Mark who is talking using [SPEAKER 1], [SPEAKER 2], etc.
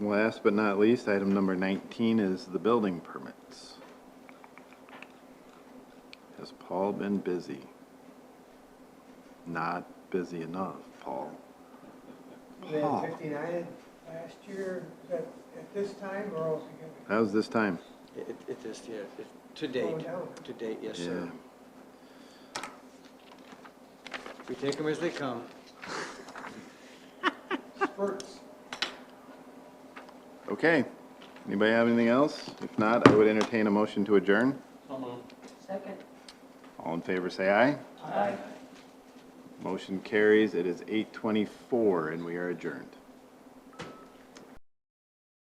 [SPEAKER 1] last but not least, item number 19 is the building permits. Has Paul been busy? Not busy enough, Paul.
[SPEAKER 2] We
[SPEAKER 1] Paul.
[SPEAKER 2] had fifty-nine last year, is that at this time or else we
[SPEAKER 1] How's this time?
[SPEAKER 3] It, it is, yeah, it- to
[SPEAKER 2] Going
[SPEAKER 3] date,
[SPEAKER 2] down.
[SPEAKER 3] to date, yes, sir.
[SPEAKER 1] Yeah.
[SPEAKER 3] We take them as they come,
[SPEAKER 2] get spurts?
[SPEAKER 1] Okay. Anybody have anything else? If not, I would entertain a motion to adjourn.
[SPEAKER 4] Second.
[SPEAKER 1] All in favor, say aye.
[SPEAKER 4] Aye.
[SPEAKER 1] Motion carries. It is 8:24 and we are adjourned.